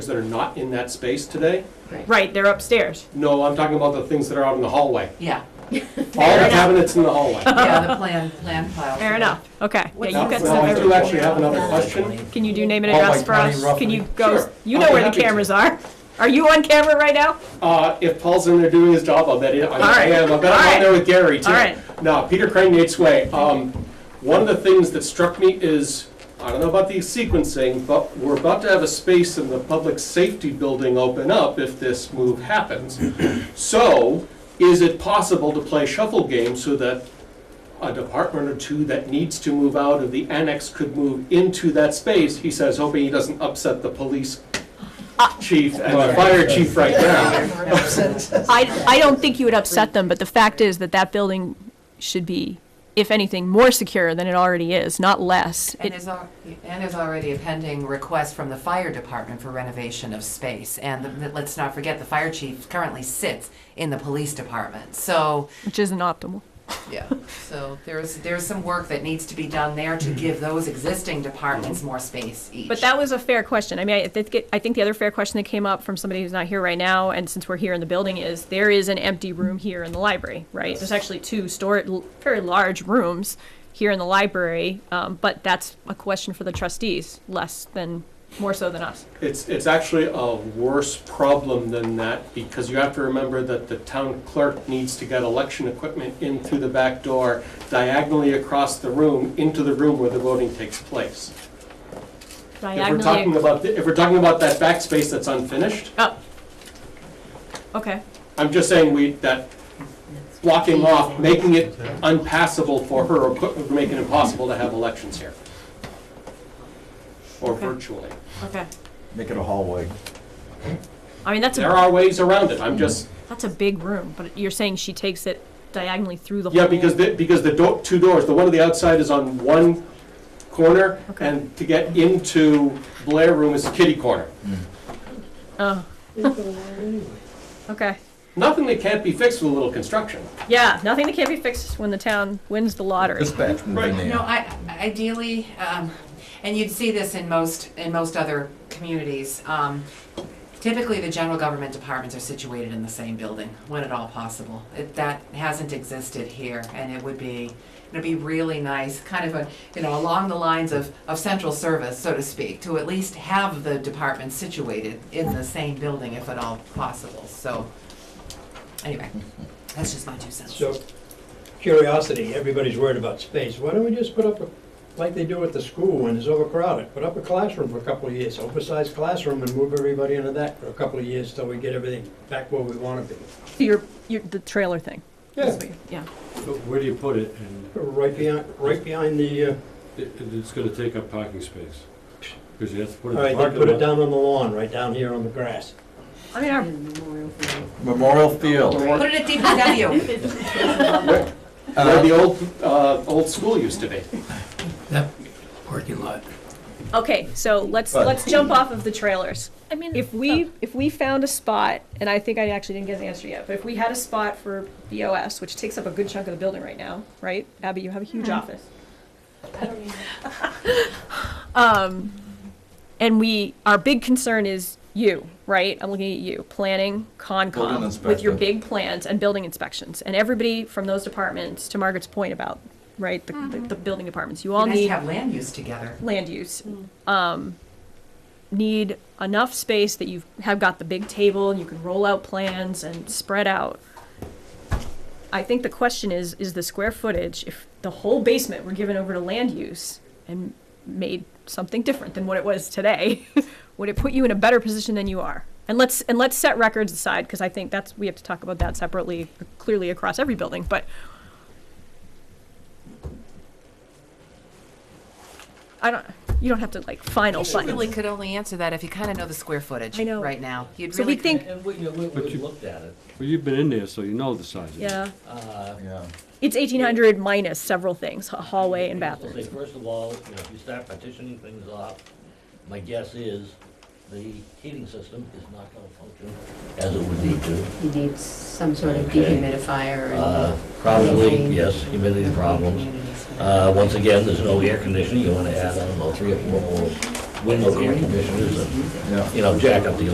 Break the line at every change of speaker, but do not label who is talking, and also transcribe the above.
things that are not in that space today?
Right, they're upstairs.
No, I'm talking about the things that are out in the hallway.
Yeah,
All the
enough.
cabinets in the hallway.
yeah, the plan, plan file.
Fair enough. Okay. Yeah,
What's
you've
Now,
got
that?
now, I
some.
do actually have another question.
Can you do name and
Oh,
address
like
for
money
us?
roughly?
Can you go?
Sure.
You
I'll
know
be
where the
happy to.
cameras are. Are you on camera right now?
Uh, if Paul's in there doing his job, I'll bet he, I
All
I
right.
am, I bet I'm
All
out there with Gary too.
All right.
Now, Peter Crane, Nate's Way, um, one of the things that struck me is, I don't know about the sequencing, but we're about to have a space in the public safety building open up if this move happens. So, is it possible to play shuffle game so that a department or two that needs to move out of the annex could move into that space? He says, hoping he doesn't upset the police
Uh,
chief and the fire chief right now.
I, I don't think you would upset them, but the fact is that that building should be, if anything, more secure than it already is, not less.
And there's, al- and there's already a pending request from the fire department for renovation of space. And the- let's not forget, the fire chief currently sits in the police department. So,
Which isn't optimal.
yeah, so there's, there's some work that needs to be done there to give those existing departments more space each.
But that was a fair question. I mean, I think, it- I think the other fair question that came up from somebody who's not here right now, and since we're here in the building, is there is an empty room here in the library, right? There's actually two stor l- very large rooms here in the library, um, but that's a question for the trustees, less than, more so than us.
It's, it's actually a worse problem than that, because you have to remember that the town clerk needs to get election equipment in through the back door, diagonally across the room, into the room where the voting takes place. If we're talking
Diagonally.
about, if we're talking about that back space that's unfinished,
Oh. Okay.
I'm just saying we, that blocking off, making it unpassable for her, or put- making it impossible to have elections here. Or
Okay.
virtually.
Okay.
Make it a hallway.
I mean, that's
There
a,
are ways around it, I'm just,
that's a big room, but you're saying she takes it diagonally through the whole.
Yeah, because the, because the do, two doors, the one on the outside is on one corner,
Okay.
and to get into Blair Room is kitty corner.
Oh. Okay.
Nothing that can't be fixed with a little construction.
Yeah, nothing that can't be fixed when the town wins the lottery.
Dispatch move
Right.
in
No,
there.
I, ideally, um, and you'd see this in most, in most other communities, um, typically the general government departments are situated in the same building, when at all possible. It, that hasn't existed here, and it would be, it'd be really nice, kind of a, you know, along the lines of, of central service, so to speak, to at least have the departments situated in the same building if at all possible, so, anyway, that's just my two cents.
So, curiosity, everybody's worried about space. Why don't we just put up, a like they do at the school when it's overcrowded, put up a classroom for a couple of years, oversized classroom and move everybody into that for a couple of years till we get everything back where we want to be.
Your, your, the trailer thing. That's what you- Yeah.
But where do you put it? And
Right behind, right behind the, uh,
it- it- it's gonna take up parking space. Because you have to put
all
it in
right,
the
they put it
parking lot.
down on the lawn, right down here on the grass.
I mean, our,
Memorial Field.
Put it at DPW,
Where where the old, uh, old school used to be.
okay, so let's,
But-
let's jump off of the trailers.
I mean, oh.
If we, if we found a spot, and I think I actually didn't get an answer yet, but if we had a spot for BOS, which takes up a good chunk of the building right now, right? Abby, you have a huge office.
Mm-hmm. I don't even.
Um, and we, our big concern is you, right? I'm looking at you, planning,
Building
Concom, with
inspector.
your big plans and building inspections. And everybody from those departments, to Margaret's point about, right, the,
Mm-hmm.
the, the building departments, you all
you guys
need
have land use together.
land use. Um, need enough space that you have got the big table and you can roll out plans and spread out. I think the question is, is the square footage, if the whole basement were given over to land use and made something different than what it was today, would it put you in a better position than you are? And let's, and let's set records aside, because I think that's, we have to talk about that separately, clearly across every building, but I don't, you don't have to like final,
You really
final.
could only answer that if you kind of know the square footage
I know.
right now. You'd
So
really
we think,
And we, you know, we,
But
we
you-
looked at it.
Well, you've been in there, so you know the size of it.
yeah.
Uh,
Yeah.
It's eighteen hundred minus several things, a hallway and
I'll
bathrooms.
say, First of all, you know, if you start partitioning things off, my guess is the heating system is not gonna function as it would need to.
He needs some sort of
Okay.
dehumidifier
Uh,
and,
Probably,
Anything.
yes, humidity problems.
communities.
Uh, once again, there's no air conditioning, you wanna add, I don't know, three or four more window air conditioners, and,
Yeah.
you know, jack up the